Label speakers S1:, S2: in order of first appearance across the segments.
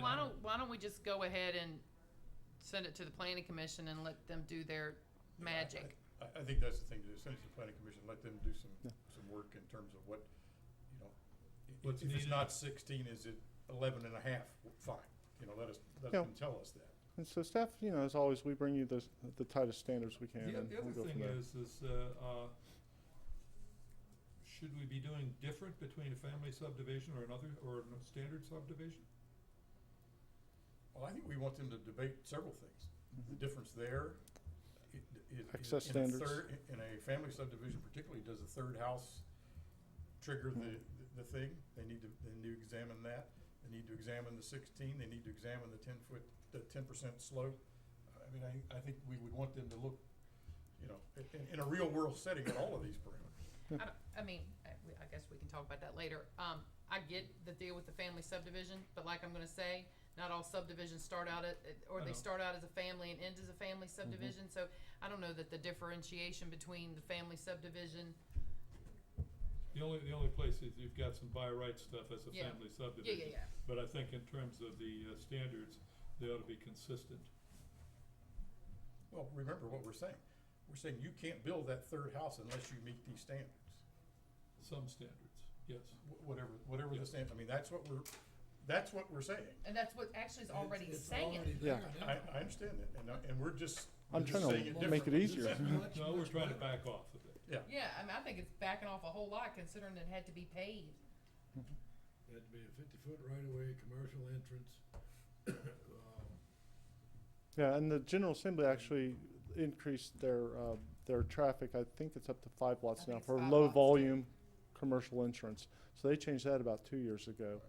S1: why don't, why don't we just go ahead and send it to the planning commission and let them do their
S2: Yeah, I-
S1: magic?
S2: I, I think that's the thing, to do, send it to the planning commission, let them do some,
S3: Yeah.
S2: some work in terms of what, you know, i- i-
S4: What's
S2: if it's
S4: needed.
S2: not sixteen, is it eleven and a half, W- fine, you know, let us, let
S3: Yeah.
S2: them tell us that.
S3: And so staff, you know, as always, we bring you the, the tightest standards we can
S4: The,
S3: and
S4: the
S3: we'll
S4: other
S3: go from
S4: thing
S3: there.
S4: is, is, uh, uh, should we be doing different between a family subdivision or another, or a standard subdivision?
S2: Well, I think we want them to debate several things, the
S3: Mhm.
S2: difference there, i- i- in-
S3: Access
S2: in a
S3: standards.
S2: third- i- In a family subdivision particularly, does a third house trigger the, the thing? They need to, they need to examine that, they need to examine the sixteen, they need to examine the ten foot, the ten percent slope. I mean, I, I think we would want them to look, you know, i- in, in a real world setting at all of these parameters.
S1: I don't, I mean, I, we- I guess we can talk about that later. Um, I get the deal with the family subdivision, but like I'm gonna say, not all subdivisions start out at, at- or
S4: I
S1: they
S4: know.
S1: start out as a family and end as a family subdivision, so I don't know that the differentiation between the family subdivision,
S4: The only, the only place is you've got some by right stuff as a
S1: Yeah.
S4: family
S1: yeah,
S4: subdivision.
S1: yeah, yeah.
S4: But I think in terms of the, uh, standards, they ought to be consistent.
S2: Well, remember what we're saying, we're saying you can't build that third house unless you meet these standards.
S4: Some standards, yes.
S2: Wh- Whatever, whatever
S4: Yeah.
S2: the standard, I mean, that's what we're, that's what we're saying.
S1: And that's what actually is
S5: It's-
S1: already
S5: it's
S1: saying.
S5: already
S3: Yeah.
S5: there now.
S2: I, I understand that, and, I- and we're just,
S3: I'm
S2: we're
S3: trying
S2: just saying it
S3: to make it
S2: differently.
S3: easier.
S5: It's much,
S4: No, we're
S5: much
S4: trying to
S5: better.
S4: back off of it.
S1: Yeah, I mean, I think it's backing off a whole lot considering it had to be paved.
S5: It'd be a fifty-foot right-of-way, commercial entrance. um,
S3: Yeah, and the General Assembly actually increased their, uh, their traffic, I think it's up to five
S1: I
S3: lots
S1: think
S3: now
S1: it's
S3: for
S1: five
S3: low
S1: lots.
S3: volume commercial insurance. So they changed that about two years ago.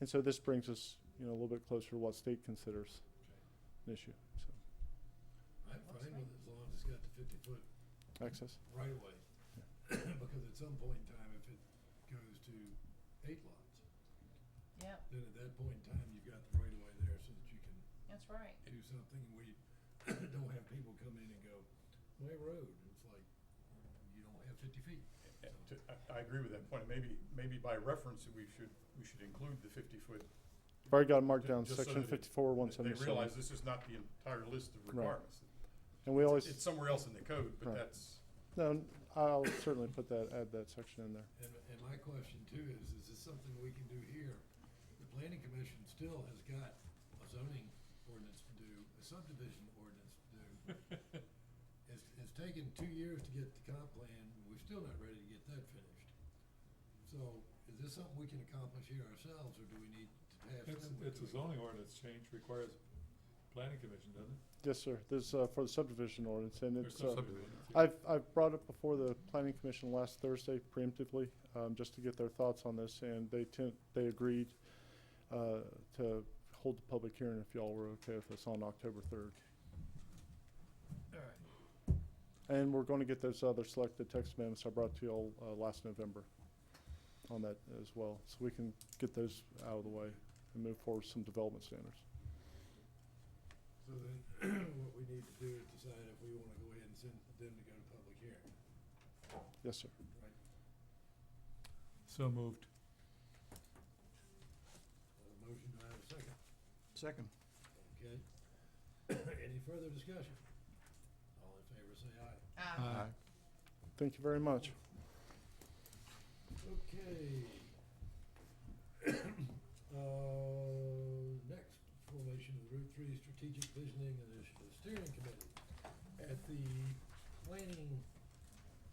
S3: And so this brings us, you know, a little bit closer to what state considers an issue, so,
S5: I'm
S1: Looks
S5: fine
S1: like-
S5: with it as long as it's got the fifty-foot
S3: access.
S5: right-of-way. Because at some point in time, if it goes to eight lots,
S1: Yeah,
S5: then at that point in time, you've got the right-of-way there so that you can
S1: that's right.
S5: do something. We don't have people come in and go, my road, and it's like, you don't have fifty feet.
S2: Yeah,
S3: Eh,
S2: to- I, I agree with that point, maybe, maybe by reference, we should, we should include the fifty-foot.
S3: I've already got it marked down,
S2: Just so
S3: section
S2: that it-
S3: fifty-four, one
S2: They
S3: seventy-seven.
S2: realize this is not the entire list of
S3: Right.
S2: requirements.
S3: And we
S2: It's-
S3: always,
S2: It's somewhere else in the code, but
S3: Right.
S2: that's,
S3: no, I'll certainly put that, add that section in there.
S5: And, and my question too is, is this something we can do here? The planning commission still has got a zoning ordinance to do, a subdivision ordinance to do. It's, it's taken two years to get the comp plan, and we're still not ready to get that finished. So is this something we can accomplish here ourselves, or do we need to pass
S4: It's,
S5: them?
S4: it's a zoning ordinance change requires planning commission, doesn't it?
S3: Yes, sir, this, uh, for the subdivision ordinance, and
S4: Or
S3: it's,
S4: some
S3: uh,
S4: subdivision, yeah.
S3: I've, I've brought it before the planning commission last Thursday preemptively, um, just to get their thoughts on this, and they tend, they agreed, uh, to hold the public hearing if y'all were okay with this on October third.
S5: Alright.
S3: And we're gonna get those other selected text amendments I brought to y'all, uh, last November on that as well, so we can get those out of the way and move forward with some development standards.
S5: So then, what we need to do is decide if we wanna go ahead and send them to go to public hearing.
S3: Yes, sir.
S4: So moved.
S5: Uh, motion, do I have a second?
S6: Second.
S5: Okay. Any further discussion? All in favor, say aye.
S1: Uh,
S3: Thank you very much.
S5: Okay. Uh, next, formation of the Route Three Strategic Visioning and Initiative Steering Committee. At the planning,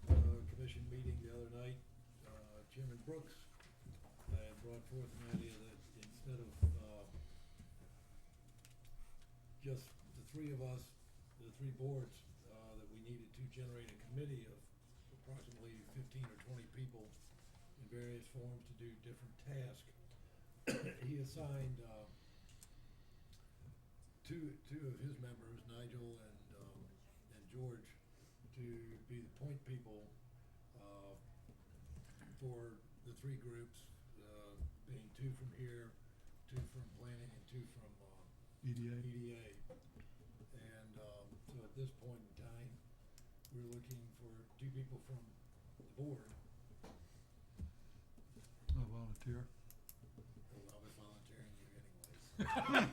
S5: uh, commission meeting the other night, uh, Chairman Brooks had brought forth an idea that instead of, uh, just the three of us, the three boards, uh, that we needed to generate a committee of approximately fifteen or twenty people in various forms to do different tasks. He assigned, uh, two, two of his members, Nigel and, um, and George, to be the point people, uh, for the three groups, uh, being two from here, two from planning, and two from, uh,
S4: EDA.
S5: EDA. And um, so at this point in time, we're looking for two people from the board.
S4: I volunteer.
S5: Well, I'll be volunteering you anyways.